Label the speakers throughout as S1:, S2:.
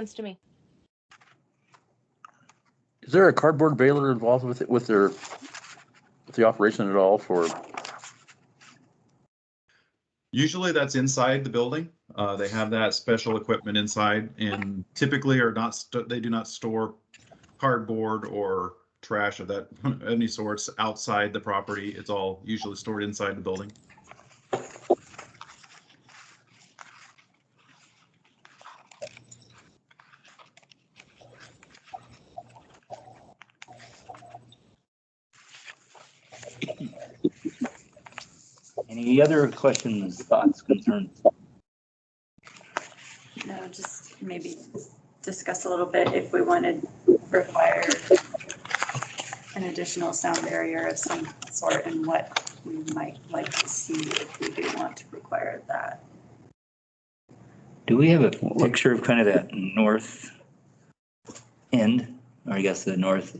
S1: sense to me.
S2: Is there a cardboard baler involved with it, with their, with the operation at all for,
S3: Usually that's inside the building. Uh, they have that special equipment inside and typically are not, st- they do not store cardboard or trash of that, any sorts outside the property. It's all usually stored inside the building.
S4: Any other questions, thoughts, concerns?
S5: No, just maybe discuss a little bit if we wanted require an additional sound barrier of some sort and what we might like to see if we do want to require that.
S4: Do we have a picture of kind of that north end, or I guess the north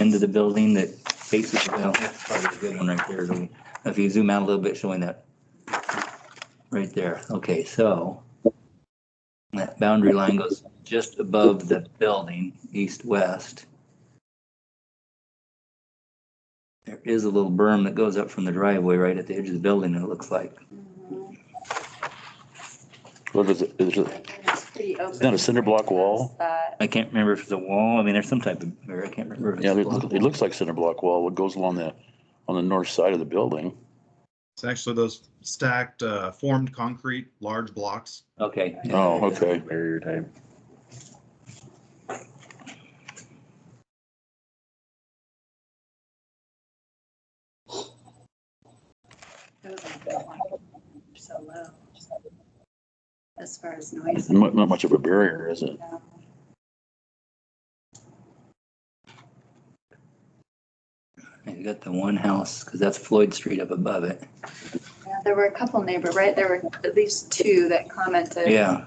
S4: end of the building that faces the well, that's probably a good one right there. Do we- If you zoom out a little bit, showing that right there. Okay, so that boundary line goes just above the building, east-west. There is a little berm that goes up from the driveway right at the edge of the building, it looks like.
S2: what is it, is it,
S5: It's pretty open.
S2: Isn't that a cinder block wall?
S5: That-
S4: I can't remember if it's a wall. I mean, there's some type of, or I can't remember. if it's
S2: yeah,
S4: a
S2: it
S4: block
S2: loo- it
S4: wall.
S2: looks like cinder block wall, what goes along the, on the north side of the building.
S3: It's actually those stacked, uh, formed concrete, large blocks.
S4: Okay.
S2: Oh, okay.
S6: Barrier type.
S5: that was a good one. So low. As far as noise.
S2: Not, not much of a barrier, is it?
S5: no.
S4: You got the one house, because that's Floyd Street up above it.
S5: Yeah, There were a couple neighbor, right? There were at least two that commented.
S4: Yeah.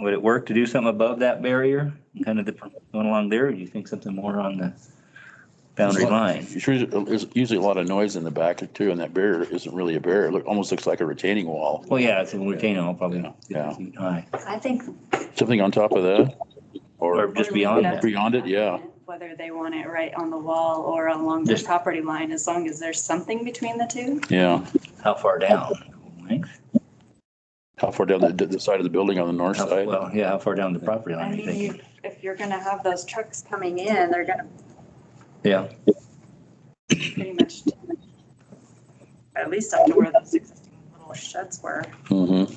S4: Would it work to do something above that barrier, kind of the, going along there? Or do you think something more on the boundary line?
S2: There's usually- There's usually a lot of noise in the back too, and that barrier isn't really a barrier, it look- almost looks like a retaining wall.
S4: Well, yeah, it's a retaining wall, probably
S2: Yeah.
S4: fifty feet high.
S5: I think
S2: Something on top of that?
S4: Or
S2: Or,
S4: just beyond that.
S2: Beyond it, yeah.
S5: Whether they want it right on the wall or along the
S4: Just-
S5: property line, as long as there's something between the two.
S2: yeah,
S4: How far down? Length?
S2: how far down the, the side of the building on the north
S4: How-
S2: side?
S4: Well, yeah, how far down the property
S5: I
S4: line, you
S5: mean, you-
S4: think?
S5: if you're gonna have those trucks coming in, they're gonna
S4: Yeah,
S5: pretty much at least up to where those existing little sheds were.
S2: Mm-hmm,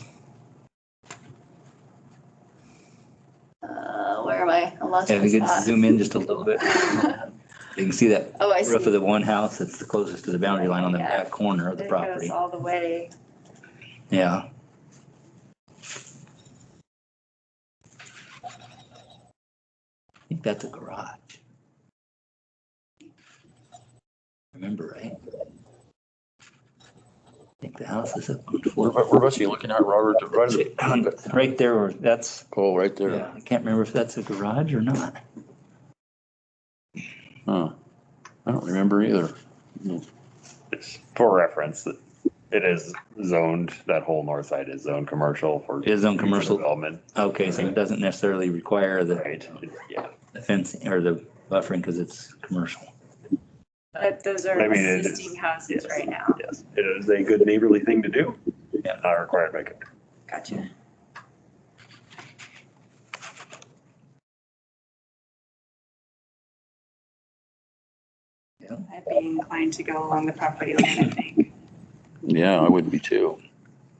S5: Uh, where am I? I lost
S4: if
S5: my
S4: you could
S5: spot.
S4: zoom in just a little bit, you can see that
S5: Oh, I see.
S4: roof of the one house that's the closest to the boundary line on the
S5: Yeah.
S4: back corner of the
S5: It goes
S4: property.
S5: all the way.
S4: Yeah, I think that's a garage. Remember, right? I think the house is up on the
S2: where,
S4: floor.
S2: where are you looking at, Robert, right, at the-
S4: Right there, or that's
S2: oh, right there,
S4: Yeah, I can't remember if that's a garage or not.
S2: huh, I don't remember either.
S6: It's- For reference, it is zoned, that whole north side is zoned commercial for.
S4: It is zoned commercial.
S6: Development,
S4: Okay, so it doesn't necessarily require the
S6: right? Yeah.
S4: the fencing or the buffering because it's commercial.
S5: But those are
S6: I mean, it is-
S5: existing houses
S6: yes.
S5: right now.
S6: Yes, it is a good neighborly thing to do. Yeah. Not required by. code.
S5: Gotcha.
S4: Yeah.
S5: I'd be inclined to go along the property line, I think,
S2: Yeah, I would be too.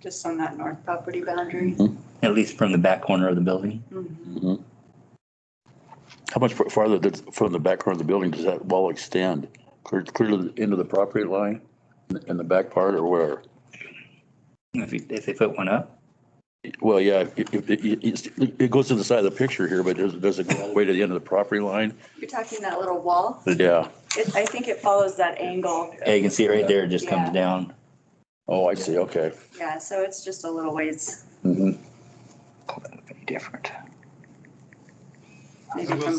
S5: just on that north property boundary.
S4: At least from the back corner of the building.
S5: Mhm.
S2: Mhm. How much fa- farther does- from the back corner of the building does that wall extend? Clear, clear to the end of the property line in the back part or where?
S4: If, you- if they put one up,
S2: Well, yeah, it, it- it, it's- it goes to the side of the picture here, but does, does it go all the way to the end of the property line?
S5: You're talking that little wall?
S2: Yeah,
S5: It, I think it follows that angle.
S4: yeah, you can see it right there, it just
S5: Yeah.
S4: comes down.
S2: oh, I see, okay. Mm-hmm.
S5: Yeah, so it's just a little ways.
S2: Mhm.
S4: That would be Different.
S5: maybe
S3: will
S5: from